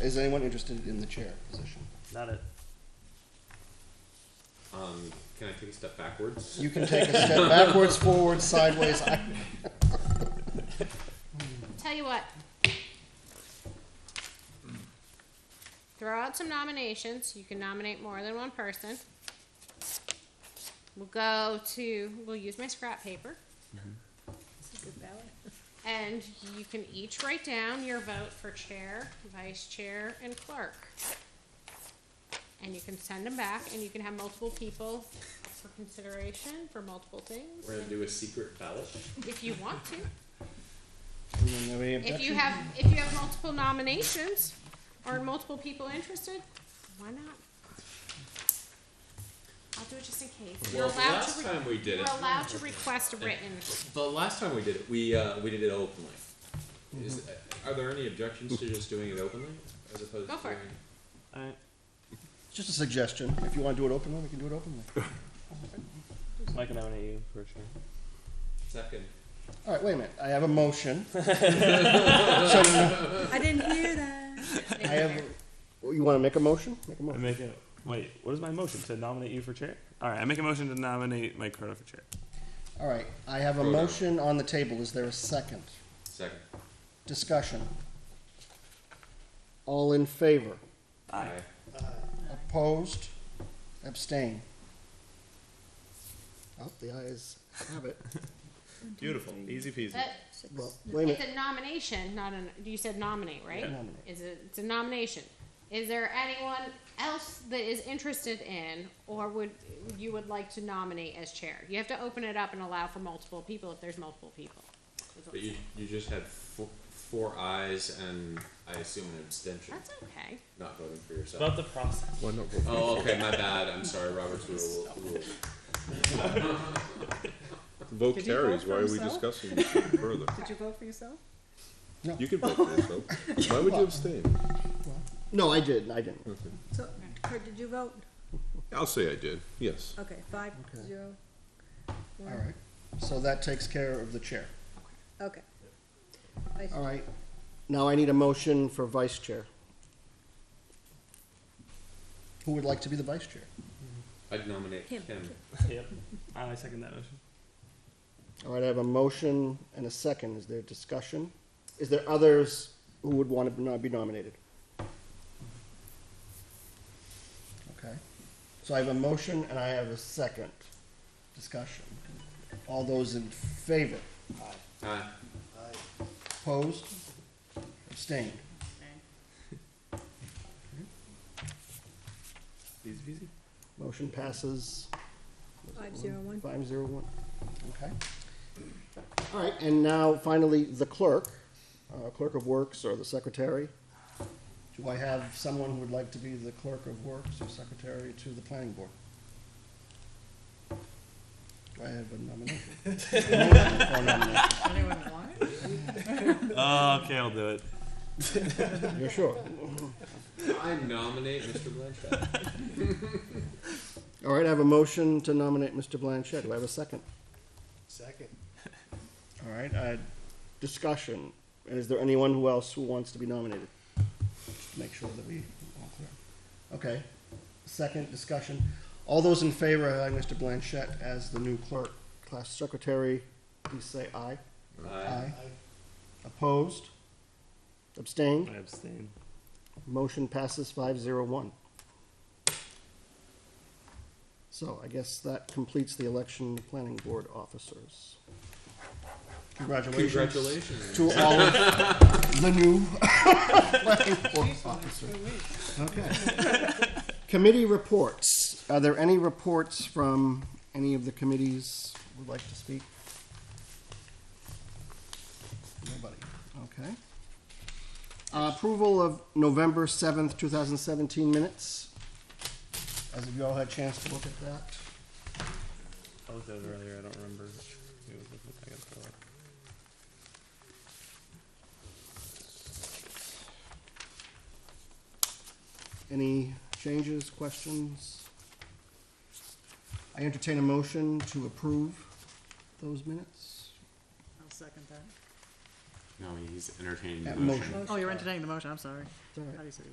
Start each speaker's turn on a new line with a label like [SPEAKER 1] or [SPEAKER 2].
[SPEAKER 1] Is anyone interested in the chair position?
[SPEAKER 2] Not it.
[SPEAKER 3] Um, can I take a step backwards?
[SPEAKER 1] You can take a step backwards, forwards, sideways. I,
[SPEAKER 4] Tell you what. Throw out some nominations. You can nominate more than one person. We'll go to, we'll use my scrap paper. And you can each write down your vote for chair, vice chair, and clerk. And you can send them back and you can have multiple people for consideration for multiple things,
[SPEAKER 3] We're gonna do a secret ballot.
[SPEAKER 4] if you want to.
[SPEAKER 1] we don't have any
[SPEAKER 4] If you
[SPEAKER 1] objection.
[SPEAKER 4] have, if you have multiple nominations or multiple people interested, why not? I'll do it just in case. You're
[SPEAKER 3] Well, the
[SPEAKER 4] allowed
[SPEAKER 3] last
[SPEAKER 4] to, re-
[SPEAKER 3] time we did
[SPEAKER 4] you're
[SPEAKER 3] it,
[SPEAKER 4] allowed to request a written.
[SPEAKER 3] the last time we did it, we uh, we did it openly. Is, uh, are there any objections to just doing it openly as opposed
[SPEAKER 4] Go
[SPEAKER 3] to
[SPEAKER 4] for it.
[SPEAKER 3] doing
[SPEAKER 2] Alright.
[SPEAKER 1] Just a suggestion. If you want to do it openly, we can do it openly.
[SPEAKER 2] I can nominate you for sure.
[SPEAKER 3] second?
[SPEAKER 1] All right, wait a minute. I have a motion. so
[SPEAKER 5] I didn't hear that.
[SPEAKER 1] I have. You want to make a motion? Make a
[SPEAKER 2] I
[SPEAKER 1] motion.
[SPEAKER 2] make a wait. What is my motion to nominate you for chair? All right, I make a motion to nominate Mike Croto for chair.
[SPEAKER 1] All right, I have a
[SPEAKER 3] Go down.
[SPEAKER 1] motion on the table. Is there a second?
[SPEAKER 3] Second.
[SPEAKER 1] Discussion. All in favor?
[SPEAKER 2] Aye.
[SPEAKER 1] Opposed? Abstain? Oh, the ayes have it.
[SPEAKER 2] Beautiful, easy peasy.
[SPEAKER 4] That,
[SPEAKER 1] Well, wait a
[SPEAKER 4] it's
[SPEAKER 1] minute.
[SPEAKER 4] a nomination, not an, you said nominate, right?
[SPEAKER 1] Nominate.
[SPEAKER 4] Is it, it's a nomination. Is there anyone else that is interested in or would, you would like to nominate as chair? You have to open it up and allow for multiple people if there's multiple people. That's what
[SPEAKER 3] But you you just had four, four eyes and I assume an abstention,
[SPEAKER 4] That's okay.
[SPEAKER 3] not voting for yourself.
[SPEAKER 2] About the process.
[SPEAKER 3] Oh, okay, my bad. I'm sorry, Robert's rule. rule.
[SPEAKER 6] Vote
[SPEAKER 5] Did he vote
[SPEAKER 6] carries.
[SPEAKER 5] for
[SPEAKER 6] Why are we
[SPEAKER 5] himself?
[SPEAKER 6] discussing this further?
[SPEAKER 5] Did you vote for yourself?
[SPEAKER 6] You can vote for yourself. Why would you abstain?
[SPEAKER 1] No, I didn't, I didn't.
[SPEAKER 5] So, Kurt, did you vote?
[SPEAKER 6] I'll say I did. Yes.
[SPEAKER 5] Okay, five, zero,
[SPEAKER 1] All
[SPEAKER 5] one.
[SPEAKER 1] right, so that takes care of the chair.
[SPEAKER 5] Okay.
[SPEAKER 1] All right, now I need a motion for vice chair. Who would like to be the vice chair?
[SPEAKER 3] I'd nominate
[SPEAKER 5] Him.
[SPEAKER 3] him.
[SPEAKER 2] Yep. I second that motion.
[SPEAKER 1] All right, I have a motion and a second. Is there discussion? Is there others who would want to not be nominated? Okay, so I have a motion and I have a second discussion. All those in favor?
[SPEAKER 3] Aye.
[SPEAKER 1] Opposed? Abstained?
[SPEAKER 2] Easy peasy.
[SPEAKER 1] Motion passes
[SPEAKER 5] Five, zero, one.
[SPEAKER 1] five zero one. Okay. All right, and now finally, the clerk, uh, clerk of works or the secretary. Do I have someone who would like to be the clerk of works or secretary to the planning board? Do I have a nomination? Motion for nomination.
[SPEAKER 5] Anyone want it?
[SPEAKER 2] Oh, okay, I'll do it.
[SPEAKER 1] You're sure?
[SPEAKER 3] I nominate Mr. Blanchett.
[SPEAKER 1] All right, I have a motion to nominate Mr. Blanchett. Do I have a second?
[SPEAKER 7] Second.
[SPEAKER 1] All right, uh, discussion. And is there anyone who else who wants to be nominated? Just Make sure that we, all clear. Okay, second discussion. All those in favor of having Mr. Blanchette as the new clerk, class secretary, please say aye.
[SPEAKER 3] Aye.
[SPEAKER 1] Opposed? Abstained?
[SPEAKER 2] I abstain.
[SPEAKER 1] Motion passes five zero one. So I guess that completes the election of planning board officers. Congratulations
[SPEAKER 3] Congratulations.
[SPEAKER 1] to all of the new planning board officers. Okay. Committee reports. Are there any reports from any of the committees who would like to speak? Nobody. Okay. Uh, Approval of November seventh, two thousand seventeen minutes. As if you all had a chance to look at that.
[SPEAKER 2] I looked at it earlier. I don't remember. which it was. I gotta pull it up.
[SPEAKER 1] Any changes, questions? I entertain a motion to approve those minutes.
[SPEAKER 5] I'll second that.
[SPEAKER 3] No, he's entertaining the
[SPEAKER 1] That
[SPEAKER 3] motion.
[SPEAKER 1] motion.
[SPEAKER 5] Oh, you're entertaining the motion, I'm sorry.
[SPEAKER 1] It's all right.
[SPEAKER 5] How do you say it?